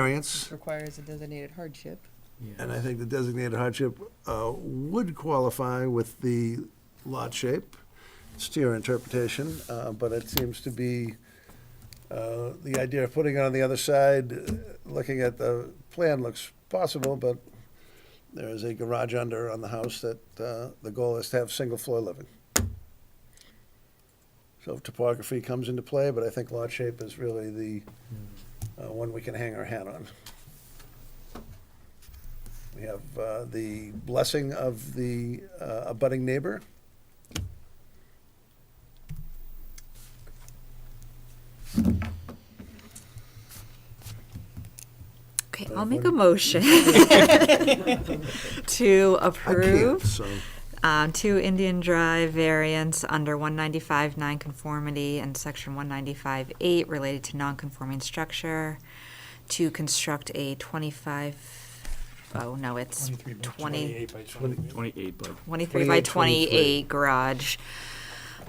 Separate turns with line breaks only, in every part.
variance,
requires a designated hardship.
and I think the designated hardship uh, would qualify with the lot shape. It's to your interpretation, uh, but it seems to be, uh, the idea of putting it on the other side, uh, looking at the plan looks possible, but there is a garage under on the house that uh, the goal is to have single floor living. So topography comes into play, but I think lot shape is really the uh, one we can hang our hat on. We have uh, the blessing of the uh, abutting neighbor.
Okay,
Uh,
I'll make
what-
a motion to
I can't,
approve
so
um, two Indian Drive variants under one ninety-five nine conformity and section one ninety-five eight related to non-conforming structure to construct a twenty-five, oh, no, it's twenty,
by twenty. Twenty-eight by.
twenty-three by
28, 23.
twenty-eight garage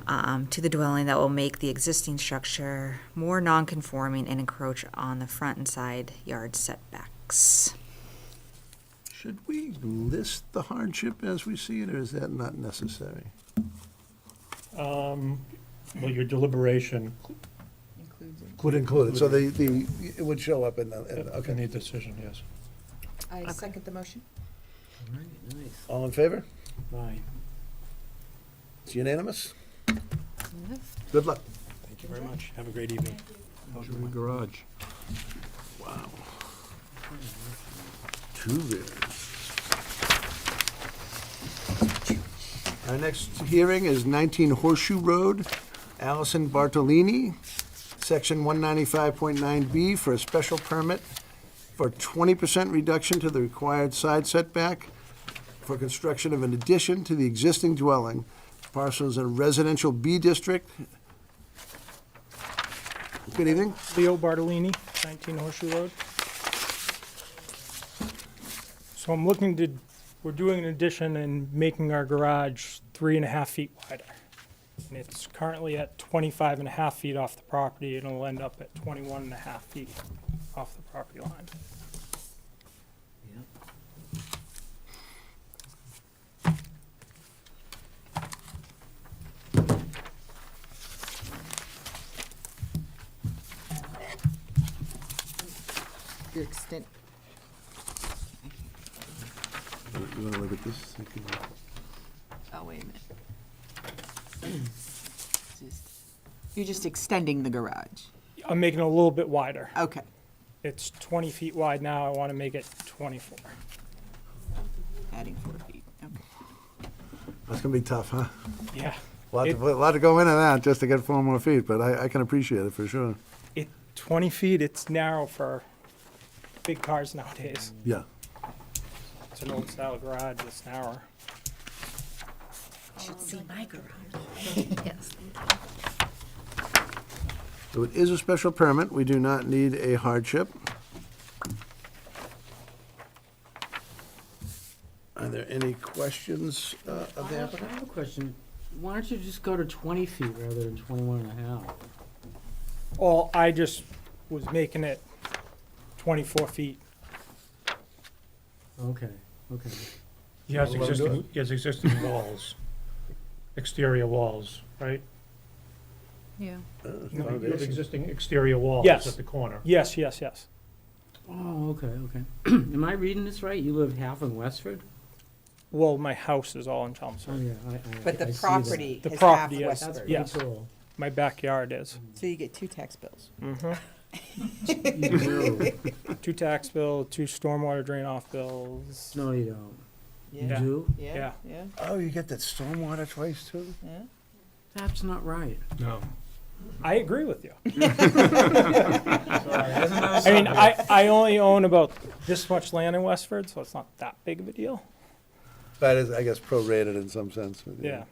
um, to the dwelling that will make the existing structure more non-conforming and encroach on the front and side yard setbacks.
should we list the hardship as we see it, or is that not necessary?
Um, well, your deliberation
Includes it.
Would include it, so the, the, it would show up in the, in-
in
Uh, okay.
the decision, yes.
I
Okay.
second the motion.
All in favor?
Aye.
It's unanimous? Good luck.
Thank you very much. Have a great evening. How's your garage?
Wow. Two bids. Our next hearing is 19 Horseshoe Road, Allison Bartolini, Section 195.9B for a special permit for 20% reduction to the required side setback for construction of an addition to the existing dwelling. Parcels in residential B district. Good evening.
Leo Bartolini, 19 Horseshoe Road. So I'm looking to, we're doing an addition and making our garage three and a half feet wider. And it's currently at 25 and a half feet off the property, and it'll end up at 21 and a half feet off the property line.
Your extent,
You want to look at this?
oh, wait a minute. Just- You're just extending the garage.
I'm making it a little bit wider.
Okay.
It's 20 feet wide now, I want to make it 24.
Adding four feet. Okay.
That's gonna be tough, huh?
Yeah.
A lot, to, a lot to go into that just to get four more feet, but I, I can appreciate it for sure.
It, 20 feet, it's narrow for big cars nowadays.
Yeah.
It's an old style garage, it's narrow.
Should see my garage. Yes.
So it is a special permit. We do not need a hardship. Are there any questions uh, of
I
the
have
applicant?
I have a question. Why don't you just go to twenty feet rather than twenty-one and a half?
Well, I just was making it twenty-four feet.
Okay, okay.
He has
Well, do
existing, he has existing walls, exterior walls, right?
Yeah.
Uh,
No,
You have
foundation.
existing exterior walls
Yes.
at the corner.
Yes, yes, yes.
Oh, okay, okay. Am I reading this right? You live half in Westford?
Well, my house is all in
Oh,
Chelmsford.
yeah, I, I.
But the
I see that.
property
The
is half
property, yes.
That's
Westford.
Yeah. yes.
pretty cool.
My backyard is.
So you get two tax bills.
Mm-hmm.
You do.
Two tax bill, two stormwater drain off bills.
No, you don't. You
Yeah.
do?
Yeah,
Yeah.
yeah,
Oh, you get that stormwater twice too?
yeah.
That's not right.
No.
I agree with you. I mean, I, I only own about this much land in Westford, so it's not that big of a deal.
That is, I guess, prorated in some sense. but
Yeah,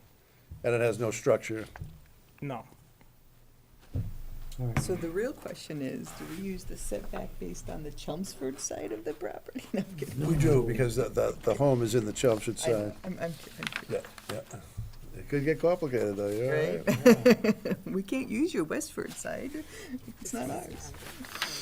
And it has no structure.
no.
All right.
So the real question is, do we use the setback based on the Chelmsford side of the property? No, I'm kidding.
We do, because the, the, the home is in the Chelmsford
I-
side.
I'm, I'm kid- I'm kidding.
Yeah, yeah. It could get complicated though, you're all right.
We can't use your Westford side. It's not ours.